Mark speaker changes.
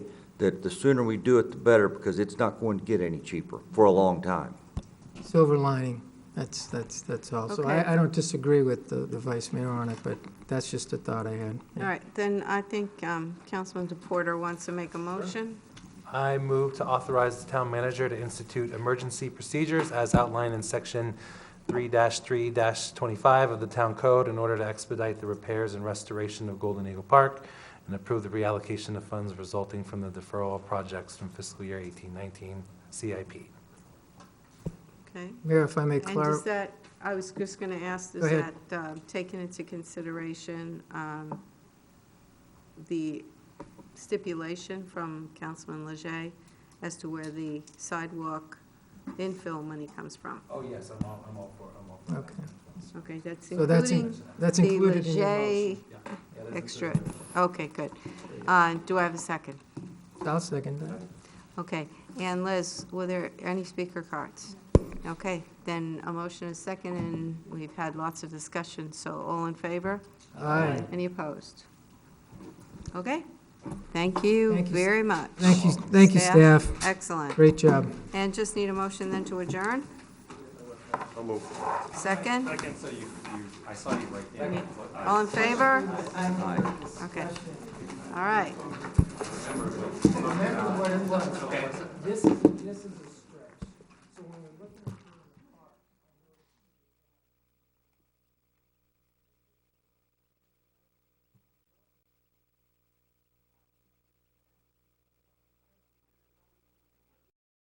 Speaker 1: that the sooner we do it, the better, because it's not going to get any cheaper for a long time.
Speaker 2: Silver lining, that's, that's, that's all. So
Speaker 3: Okay.
Speaker 2: I, I don't disagree with the, the vice mayor on it, but that's just a thought I had.
Speaker 3: All right, then I think um, Councilman DePorter wants to make a motion.
Speaker 4: I move to authorize the town manager to institute emergency procedures as outlined in section 3-3-25 of the town code in order to expedite the repairs and restoration of Golden Eagle Park and approve the reallocation of funds resulting from the deferral of projects from fiscal year 1819 CIP.
Speaker 3: Okay.
Speaker 2: Mayor, if I may
Speaker 3: And does
Speaker 2: clarify,
Speaker 3: that, I was just going to ask, does
Speaker 2: Go ahead.
Speaker 3: that uh, take into consideration um, the stipulation from Councilman Leger as to where the sidewalk infill money comes from?
Speaker 4: Oh, yes, I'm all, I'm all for, I'm all for
Speaker 2: Okay.
Speaker 3: Okay, that's
Speaker 2: So that's in-
Speaker 3: including
Speaker 2: that's
Speaker 3: the
Speaker 2: included in your
Speaker 3: Leger extra. Okay, good. Uh, Do I have a second?
Speaker 2: I'll second that.
Speaker 3: Okay, and Liz, were there any speaker cards? Okay, then a motion is second, and we've had lots of discussion, so all in favor?
Speaker 2: Aye.
Speaker 3: Any opposed? Okay, thank you
Speaker 2: Thank you, s-
Speaker 3: very much.
Speaker 2: Thank you, thank you, staff.
Speaker 3: Excellent.
Speaker 2: Great job.
Speaker 3: And just need a motion then to adjourn? Second? Second, so you, I saw you right there. All in favor? Okay, all right.
Speaker 2: Remember what it was. This is, this is a